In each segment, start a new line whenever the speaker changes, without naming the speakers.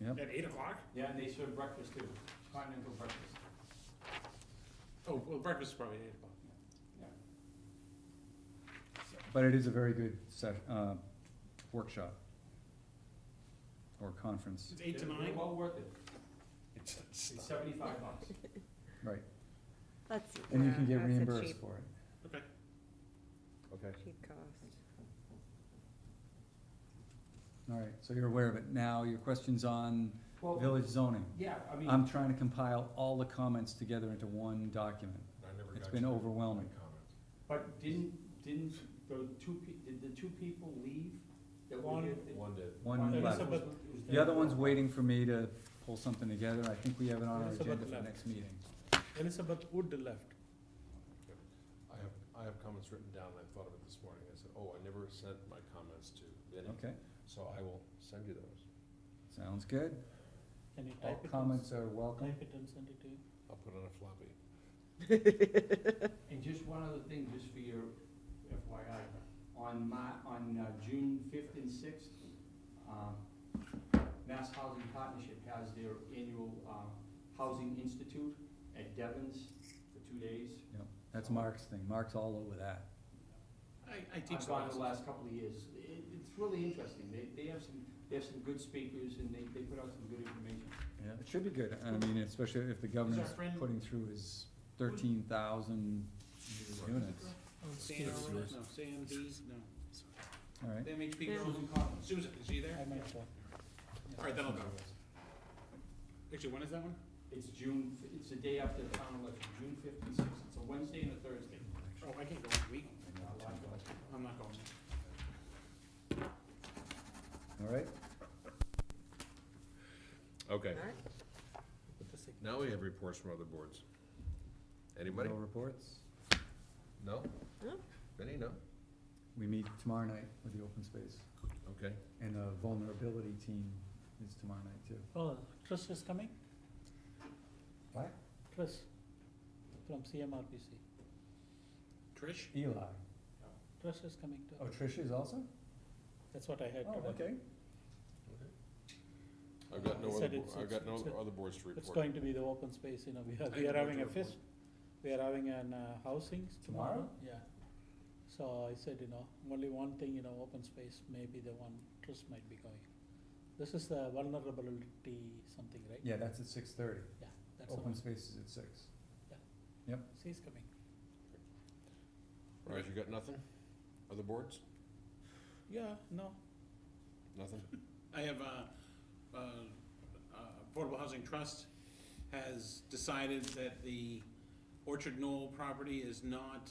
Yep.
At eight o'clock?
Yeah, and they serve breakfast too, continental breakfast.
Oh, well, breakfast is probably at eight o'clock.
But it is a very good set, uh, workshop. Or conference,
It's eight to
They're-
nine?
They're well worth it,
It's- it's-
it's seventy-five bucks.
right,
That's,
and you
yeah,
can get
Uh, that's a
reimbursed
cheap,
for it.
Okay,
Okay.
cheap cost.
Alright, so you're aware of it. Now, your question's on
Well,
village Um, zoning.
yeah, I mean,
I'm trying to compile all the comments together into one document.
I never
It's
got
been
your
overwhelming.
comments.
but didn't, didn't the two pe- did the two people leave? that were
One-
here? Did-
One did.
one
One
was-
left.
Elizabeth-
was
The other
there.
one's waiting for me to pull something together. I think we have it on our
Elizabeth
agenda for
left.
next meeting.
Elizabeth Wood left.
I have, I have comments written down, I thought of it this morning, I said, oh, I never sent my comments to Vinnie,
Okay,
so I will send you those.
sounds good.
Can you
All
type it?
comments are welcome.
Type it and send it to you.
I'll put it on a floppy.
And just one other thing, just for your FYI, on my, on uh, June fifth and sixth, um, Mass Housing Partnership has their annual, um, Housing Institute at Devon's for two days.
That's Mark's thing. Mark's all over that.
I, I teach
I've gone the
classes.
last couple of years. It, it's really interesting. They, they have some, they have some good speakers and they, they put out some good information.
Yeah, it should be good, I mean, especially if the
our
governor's
friend-
putting through his thirteen thousand units,
Oh, Sam,
Yes,
no,
yours.
Sam B, no.
alright?
The MHP
Yeah.
girl. Susan, is she there? I might Alright, then I'll go. Actually, when is that one?
It's June, f- it's the day after the town election, June fifth and sixth. It's a Wednesday and a Thursday.
Oh, I can't go next week.
Not a lot going on.
I'm not going.
Alright,
Okay,
Alright,
now we have reports from other boards.
no
Anybody?
reports,
No?
No.
Vinnie, no?
we meet tomorrow night with the open space,
Okay.
and the vulnerability team is tomorrow night too.
Oh, Chris is coming?
What?
Chris, from CMRPC. Trish?
Eli,
Trish is coming too.
oh, Trish is also?
That's what I heard
Oh, okay,
I've got no
He
other,
said
bo-
it's-
I've
it's-
got no
it's a-
other boards to report.
It's going to be the open space, you know, we are,
I
we
have no
are having a
report.
fest, we are having an uh, housing tomorrow,
Tomorrow?
yeah. So I said, you know, only one thing, you know, open space may be the one, Chris might be going. This is the vulnerability something, right?
yeah, that's at six thirty,
That's the
open
one,
space is at six.
she's coming.
All right, you got nothing? Other boards?
Yeah, no,
Nothing?
I have, uh, uh, uh, Affordable Housing Trust has decided that the Orchard Knoll property is not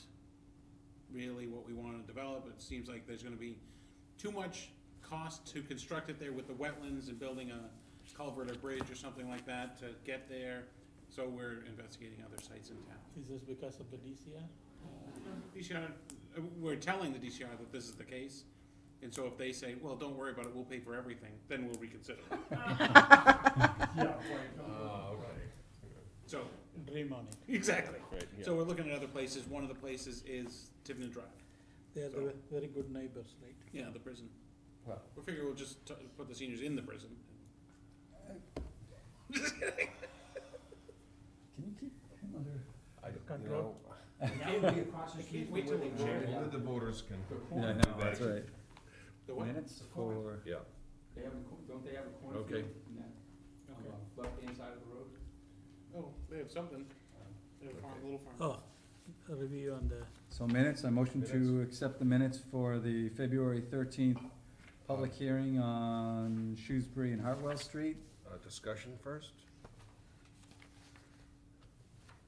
really what we wanna develop. It seems like there's gonna be too much cost to construct it there with the wetlands and building a culvert or bridge or something like that to get there. So we're investigating other sites in town.
Is this because of the DCR?
DCR, uh, we're telling the DCR that this is the case, and so if they say, well, don't worry about it, we'll pay for everything, then we'll reconsider.
Yeah, right.
Uh, okay.
So,
Dream on it.
exactly.
Right, yeah.
So we're looking at other places, one of the places is Tiverton Drive,
They are the
So-
ve- very good neighbors, right?
yeah, the prison.
Well,
We figure we'll just t- put the seniors in the prison.
can you keep him under?
I, you know,
Control.
That would be across the
I
street
can't
from
wait
where
till
they
the
grow
chair-
it
only
up.
the voters can.
The
Yeah, I
corn,
know, that's right,
The what?
minutes for,
Yeah.
they have, a cor- don't they have a cornfield
Okay.
in that, on
Okay.
the left-hand side of the road?
Oh, they have something, they have a farm, little farm.
Oh, a review on the,
so minutes, I motion to accept the minutes for the February thirteenth public hearing on Shrewsbury and Hartwell Street.
Uh, discussion first?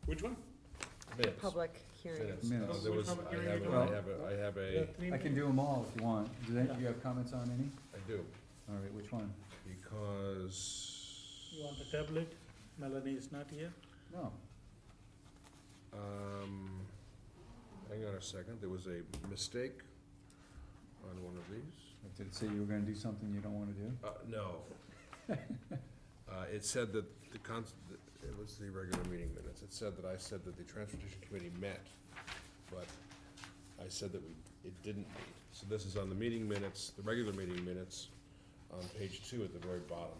Which one?
Minutes.
Public hearing.
Minutes.
Minutes.
Uh, There was,
Which public
I
hearing
have,
you
a-
doing?
I have, a- I have
the
a,
three
I can do them all if you want. Do they, do you have comments on any?
I do,
All right, which one?
because.
You want a tablet? Melanie is not here.
No.
Um, hang on a second, there was a mistake on one of these.
Did it say you were gonna do something you don't wanna do?
Uh, no. Uh, it said that the cons, it was the regular meeting minutes, it said that I said that the transportation committee met, but I said that we, it didn't meet. So this is on the meeting minutes, the regular meeting minutes, on page two at the very bottom.